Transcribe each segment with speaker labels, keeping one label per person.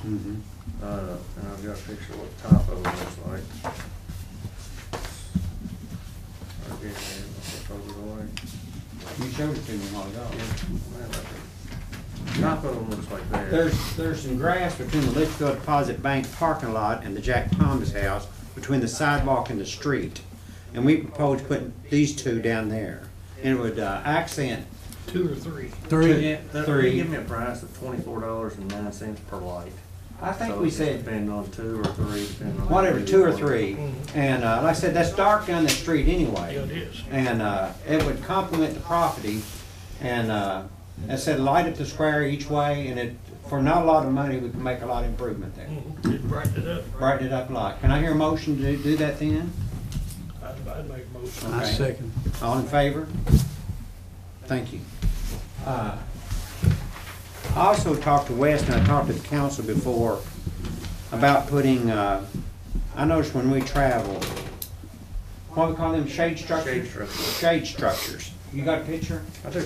Speaker 1: Mm-hmm.
Speaker 2: Uh, and I've got a picture of what the top of it looks like. I gave it, I told it away.
Speaker 1: You showed it to me a while ago.
Speaker 2: Yeah, man, I think- Top of them looks like that.
Speaker 1: There's, there's some grass between the Litchfield Deposit Bank parking lot and the Jack Thomas house, between the sidewalk and the street. And we proposed putting these two down there. And it would uh, accent.
Speaker 3: two or three.
Speaker 1: Three.
Speaker 2: That- They give me a price of twenty-four dollars and nine cents per light.
Speaker 1: I think
Speaker 2: So
Speaker 1: we
Speaker 2: it just
Speaker 1: said
Speaker 2: Depend on two or three, depending on.
Speaker 1: whatever, two or three. And uh, like I said, that's dark down the street anyway.
Speaker 3: Mm-hmm. Yeah, it is.
Speaker 1: And uh, it would complement the property. And uh, I said, light up the square each way, and it, for not a lot of money, we can make a lot of improvement
Speaker 3: Mm-hmm.
Speaker 1: there.
Speaker 3: Just brighten it up.
Speaker 1: Brighten it up a lot. Can I hear a motion to do that then?
Speaker 3: I'd, I'd make a motion.
Speaker 4: I
Speaker 1: Okay.
Speaker 4: second.
Speaker 1: All in favor? Thank you. Uh, I also talked to Wes and I talked to the council before about putting, uh, I noticed when we travel, what we call them, shade
Speaker 2: Shade
Speaker 1: structures?
Speaker 2: structure.
Speaker 1: Shade structures. You got a picture?
Speaker 2: I do.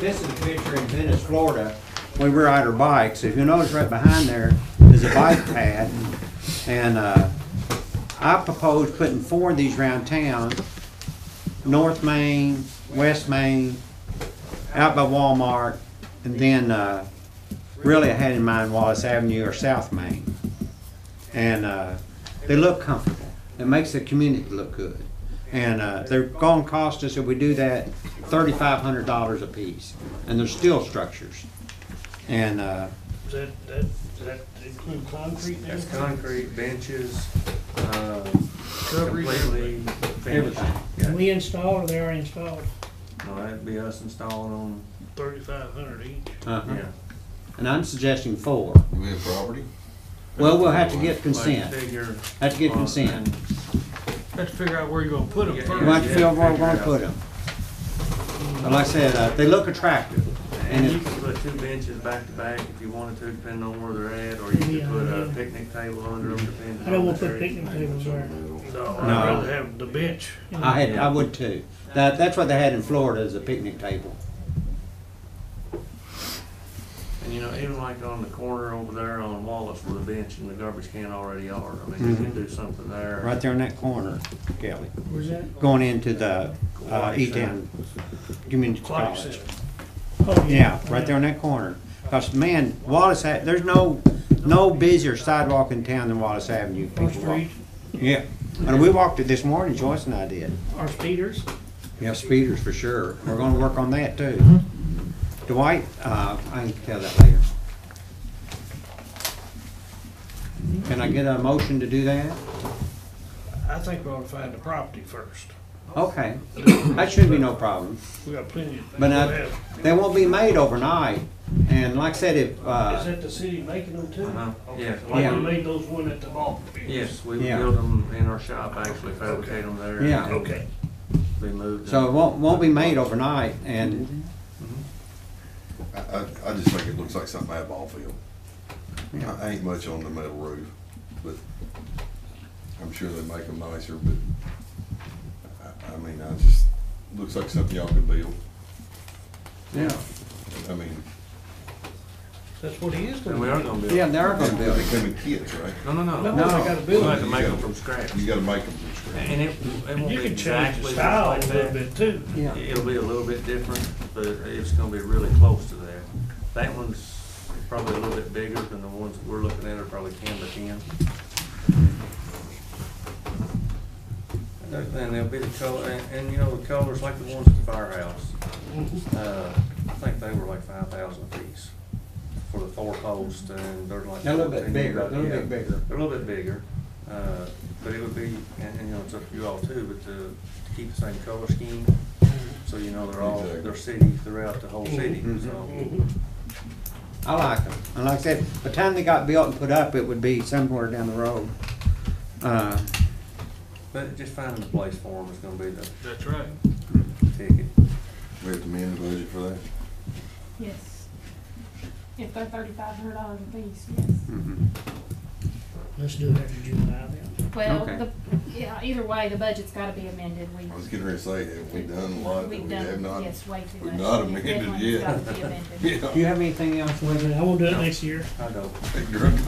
Speaker 1: This is a picture in Venice, Florida, when we ride our bikes. If you notice right behind there is a bike pad. And uh, I proposed putting four of these around town, North Main, West Main, out by Walmart, and then uh, really I had in mind Wallace Avenue or South Main. And uh, they look comfortable. It makes the community look good. And uh, they're going to cost us, if we do that, $3,500 a piece. And they're steel structures. And uh,
Speaker 3: Does that, that, does that include concrete and
Speaker 2: That's
Speaker 3: everything?
Speaker 2: concrete, benches, uh,
Speaker 3: Shrubbery.
Speaker 2: completely finished.
Speaker 1: Everything.
Speaker 2: Yeah.
Speaker 5: We installed, or they already installed.
Speaker 2: No, that'd be us installing on,
Speaker 3: Thirty-five hundred each.
Speaker 1: uh-huh.
Speaker 2: yeah.
Speaker 1: and I'm suggesting four.
Speaker 6: Do we have property?
Speaker 1: Well, we'll have to get
Speaker 2: Like
Speaker 1: consent.
Speaker 2: figure.
Speaker 1: Have to get consent.
Speaker 3: Have to figure out where you're gonna put them
Speaker 2: Yeah,
Speaker 1: We want
Speaker 3: first.
Speaker 1: to feel where we're gonna put them. But like I said, uh, they look attractive. And
Speaker 2: And you
Speaker 1: it-
Speaker 2: can put two benches back to back if you wanted to, depending on where they're at, or you could
Speaker 5: Yeah,
Speaker 2: put a
Speaker 5: yeah.
Speaker 2: picnic table under them, depending on.
Speaker 5: I don't
Speaker 2: the
Speaker 5: want to put
Speaker 2: area.
Speaker 5: picnic tables there.
Speaker 3: No, I'd
Speaker 1: No.
Speaker 3: rather have the bench.
Speaker 1: I had, I would too. That, that's what they had in Florida is a picnic table.
Speaker 2: And you know, even like on the corner over there on Wallace where the bench and the garbage can already are, I mean, you could do something there.
Speaker 1: Mm-hmm. Right there in that corner, Kelly,
Speaker 5: Where's that?
Speaker 1: going into the, uh, E-Town Community
Speaker 3: Aquatic
Speaker 1: College.
Speaker 3: center.
Speaker 5: Oh,
Speaker 1: Yeah, right there in that corner. Cause man, Wallace, Ha- there's no, no busier sidewalk in town than Wallace Avenue.
Speaker 5: Or
Speaker 1: People walk-
Speaker 5: street,
Speaker 1: Yeah, and we walked it this morning, Joyce and I did.
Speaker 5: or speeders.
Speaker 1: Yeah, speeders for sure. We're gonna work on that too. Dwight, uh, I can tell that later. Can I get a motion to do that?
Speaker 3: I think we ought to find the property first.
Speaker 1: Okay, that should be no problem.
Speaker 3: We got plenty of things
Speaker 1: But
Speaker 3: to
Speaker 1: uh,
Speaker 3: have.
Speaker 1: they won't be made overnight, and like I said, if,
Speaker 3: Is
Speaker 1: uh,
Speaker 3: that the city making them too?
Speaker 2: Uh-huh. Yeah.
Speaker 3: Okay, Like
Speaker 1: Yeah.
Speaker 3: we made those one at the ball field.
Speaker 2: Yes, we
Speaker 1: Yeah.
Speaker 2: build them in our shop, actually fabricate them there. and
Speaker 1: Yeah.
Speaker 3: Okay.
Speaker 2: They moved.
Speaker 1: so it won't, won't be made overnight, and,
Speaker 6: I, I, I just think it looks like something out of ball field. I
Speaker 1: yeah,
Speaker 6: I ain't much on the metal roof, but I'm sure they make them nicer, but I, I mean, I just, looks like something y'all could build.
Speaker 1: yeah,
Speaker 6: I mean,
Speaker 3: That's what he is
Speaker 2: And
Speaker 3: gonna do.
Speaker 2: we are gonna build.
Speaker 1: yeah,
Speaker 2: them.
Speaker 1: they are gonna build
Speaker 6: they
Speaker 1: it.
Speaker 6: come in kits, right?
Speaker 2: No, no, no.
Speaker 3: No, they gotta
Speaker 2: We'll
Speaker 3: build
Speaker 2: have to
Speaker 3: them.
Speaker 2: make them from scratch.
Speaker 6: You gotta make them from scratch.
Speaker 2: And it, it won't
Speaker 3: You
Speaker 2: be
Speaker 3: can change the
Speaker 2: exactly just
Speaker 3: style a
Speaker 2: like
Speaker 3: little
Speaker 2: that.
Speaker 3: bit too.
Speaker 1: Yeah,
Speaker 2: It'll be a little bit different, but it's gonna be really close to that. That one's probably a little bit bigger than the ones that we're looking at are probably ten by ten. And they'll be the color, and, and you know, the colors like the ones at the firehouse. Uh, I think they were like five thousand piece for the four posts and they're like.
Speaker 1: They're a little bit
Speaker 2: 14,
Speaker 1: bigger,
Speaker 2: about-
Speaker 1: they're a little bit
Speaker 2: yeah.
Speaker 1: bigger.
Speaker 2: They're a little bit bigger, uh, but it would be, and, and, you know, it's up to you all too, but to, to keep the same color scheme, so you know they're all,
Speaker 6: Exactly.
Speaker 2: they're city throughout the whole city, so.
Speaker 3: Mhm.
Speaker 1: I like them, and like I said, by the time they got built and put up, it would be somewhere down the road. Uh,
Speaker 2: But just finding the place for them is gonna be the
Speaker 3: That's right.
Speaker 2: ticket.
Speaker 6: We have to amend the budget for that.
Speaker 7: Yes. If they're thirty-five hundred dollars a piece, yes.
Speaker 1: mhm.
Speaker 3: Let's do it after juvenile then.
Speaker 7: Well,
Speaker 1: Okay.
Speaker 7: the, yeah, either way, the budget's gotta be amended, we.
Speaker 6: I was getting ready to say, have we done a lot that
Speaker 7: We've
Speaker 6: we
Speaker 7: done-
Speaker 6: have not?
Speaker 7: Yes, way too much.
Speaker 6: we've not amended
Speaker 7: Definitely
Speaker 6: yet.
Speaker 7: gotta be amended.
Speaker 6: Yeah.
Speaker 1: Do you have anything else, William?
Speaker 3: I will do it next year.
Speaker 2: I don't.
Speaker 6: Drunk